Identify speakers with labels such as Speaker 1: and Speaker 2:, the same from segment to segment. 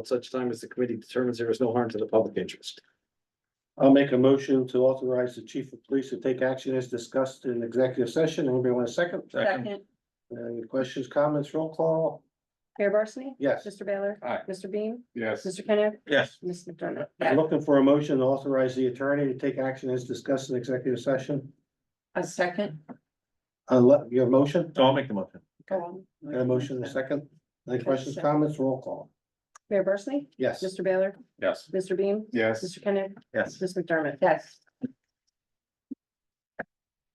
Speaker 1: at such time as the committee determines there is no harm to the public interest.
Speaker 2: I'll make a motion to authorize the chief of police to take action as discussed in executive session. Anybody want a second?
Speaker 3: Second,
Speaker 2: Any questions, comments, roll call?
Speaker 3: Mayor Barsney?
Speaker 2: Yes.
Speaker 3: Mr. Baylor?
Speaker 2: Aye.
Speaker 3: Mr. Bean?
Speaker 4: Yes.
Speaker 3: Mr. Kenneth?
Speaker 2: Yes.
Speaker 3: Ms. McDermott?
Speaker 2: I'm looking for a motion to authorize the attorney to take action as discussed in executive session. Uh,
Speaker 3: A second.
Speaker 2: Unless, your motion,
Speaker 4: So I'll make the motion.
Speaker 3: Go on.
Speaker 2: and a motion in a second. Any questions, comments, roll call?
Speaker 3: Mayor Barsney?
Speaker 2: Yes.
Speaker 3: Mr. Baylor?
Speaker 4: Yes.
Speaker 3: Mr. Bean?
Speaker 4: Yes.
Speaker 3: Mr. Kenneth?
Speaker 4: Yes.
Speaker 3: Ms. McDermott? Yes.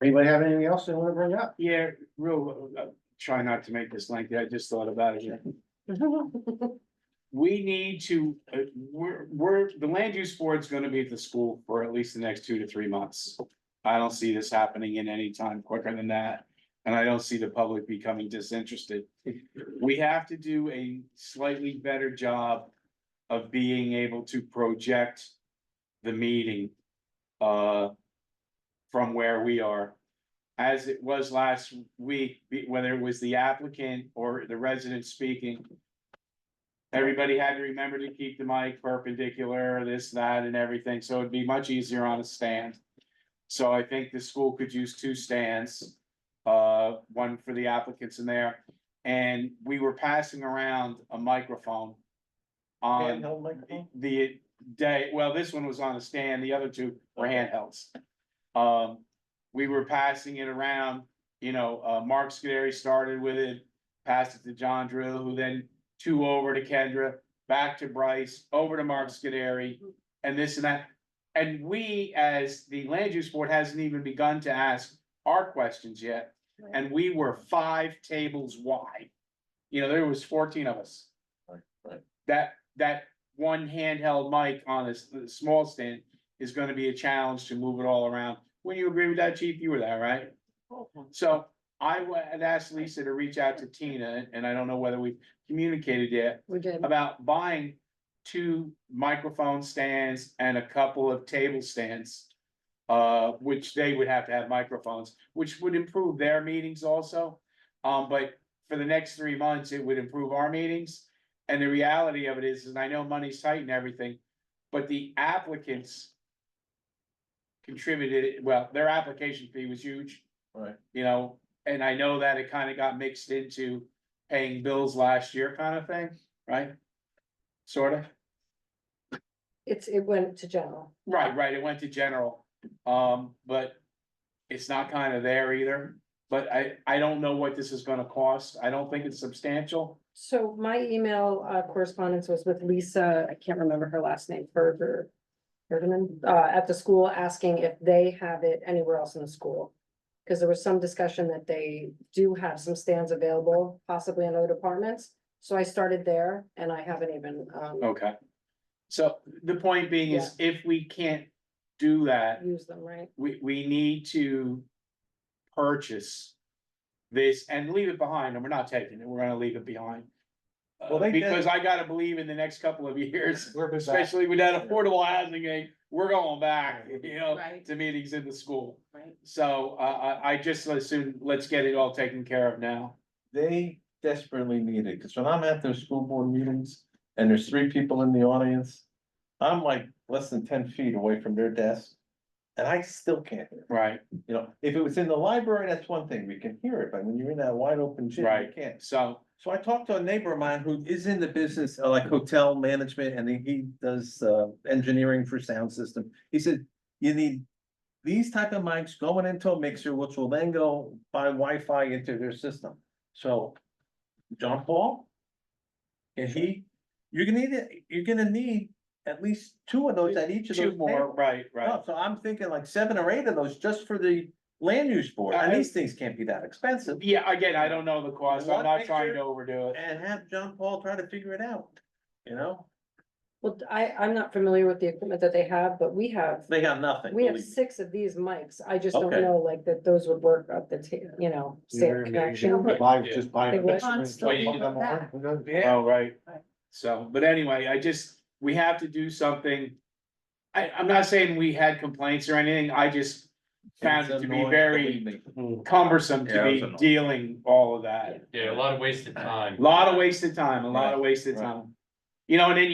Speaker 2: Anybody have anything else they want to bring up?
Speaker 5: Yeah, real, uh, try not to make this lengthy, I just thought about it. We need to, uh, we're, we're, the land use board's gonna be at the school for at least the next two to three months. I don't see this happening in any time quicker than that, and I don't see the public becoming disinterested. We have to do a slightly better job of being able to project the meeting. Uh, from where we are as it was last week, be- whether it was the applicant or the resident speaking. Everybody had to remember to keep the mic perpendicular, this, that, and everything, so it'd be much easier on a stand. So I think the school could use two stands, uh, one for the applicants in there. And we were passing around a microphone on the day, well, this one was on a stand, the other two were handhelds. Um, we were passing it around, you know, uh, Mark Scary started with it, passed it to John Drill, who then two over to Kendra, back to Bryce, over to Mark Scary, and this and that. And we, as the land use board, hasn't even begun to ask our questions yet, and we were five tables wide. You know, there was fourteen of us.
Speaker 4: Right, right.
Speaker 5: That, that one handheld mic on a, s- a small stand is gonna be a challenge to move it all around. Wouldn't you agree with that, chief? You were there, right? So I would ask Lisa to reach out to Tina, and I don't know whether we've communicated yet,
Speaker 3: We did.
Speaker 5: about buying two microphone stands and a couple of table stands. Uh, which they would have to have microphones, which would improve their meetings also. Um, but for the next three months, it would improve our meetings. And the reality of it is, and I know money's tight and everything, but the applicants. Contributed, well, their application fee was huge.
Speaker 4: Right.
Speaker 5: You know, and I know that it kind of got mixed into paying bills last year kind of thing, right? Sort of,
Speaker 3: It's, it went to general.
Speaker 5: right, right, it went to general, um, but. It's not kind of there either, but I, I don't know what this is gonna cost, I don't think it's substantial.
Speaker 3: So my email uh, correspondence was with Lisa, I can't remember her last name, Berger. Bergman, uh, at the school, asking if they have it anywhere else in the school. Cause there was some discussion that they do have some stands available, possibly in other departments. So I started there and I haven't even, um,
Speaker 5: Okay. So the point being is, if we can't do that,
Speaker 3: used them, right?
Speaker 5: we, we need to purchase this and leave it behind, and we're not taking it, we're gonna leave it behind. Uh,
Speaker 4: Well, they did-
Speaker 5: Because I gotta believe in the next couple of years,
Speaker 4: We're back.
Speaker 5: especially with that affordable housing, aid, we're going back, you know,
Speaker 3: Right.
Speaker 5: to meetings in the school.
Speaker 3: Right.
Speaker 5: So uh, I, I, I just assume, let's get it all taken care of now.
Speaker 4: They desperately need it, because when I'm at their school board meetings and there's three people in the audience, I'm like less than ten feet away from their desk. And I still can't hear,
Speaker 5: Right,
Speaker 4: you know, if it was in the library, that's one thing, we can hear it, but when you're in that wide open gym, you
Speaker 5: Right.
Speaker 4: can't.
Speaker 5: so,
Speaker 4: So I talked to a neighbor of mine who is in the business, uh, like hotel management, and he- he does uh engineering for sound system. He said, you need. These type of mics going into a mixer, which will then go by Wi-Fi into their system, so. John Paul. And he, you're gonna need, it- you're gonna need at least two of those at each of those.
Speaker 5: two more,
Speaker 4: tables.
Speaker 5: right, right.
Speaker 4: No, So I'm thinking like seven or eight of those just for the land use board, and these things can't be that expensive.
Speaker 5: Yeah, again, I don't know the cost, I'm
Speaker 4: One
Speaker 5: not trying to
Speaker 4: picture
Speaker 5: overdo it.
Speaker 4: and have John Paul try to figure it out, you know?
Speaker 3: Well, I, I'm not familiar with the equipment that they have, but we have,
Speaker 4: They got nothing.
Speaker 3: we have
Speaker 4: believe me.
Speaker 3: six of these mics. I just don't
Speaker 4: Okay.
Speaker 3: know like that those would work up the, ta- you know,
Speaker 2: You're
Speaker 3: standard
Speaker 2: in
Speaker 3: connection.
Speaker 2: the- Buy, just buy.
Speaker 3: It was-
Speaker 5: Oh, right. So, but anyway, I just, we have to do something. I, I'm not saying we had complaints or anything, I just found it to be
Speaker 4: Annoying,
Speaker 5: very
Speaker 4: believe me.
Speaker 5: cumbersome to
Speaker 4: Yeah, it was
Speaker 5: be
Speaker 4: annoying.
Speaker 5: dealing all of that.
Speaker 6: Yeah, a lot of wasted time.
Speaker 5: Lot of wasted time, a lot of wasted
Speaker 4: Right, right.
Speaker 5: time. You know, and then you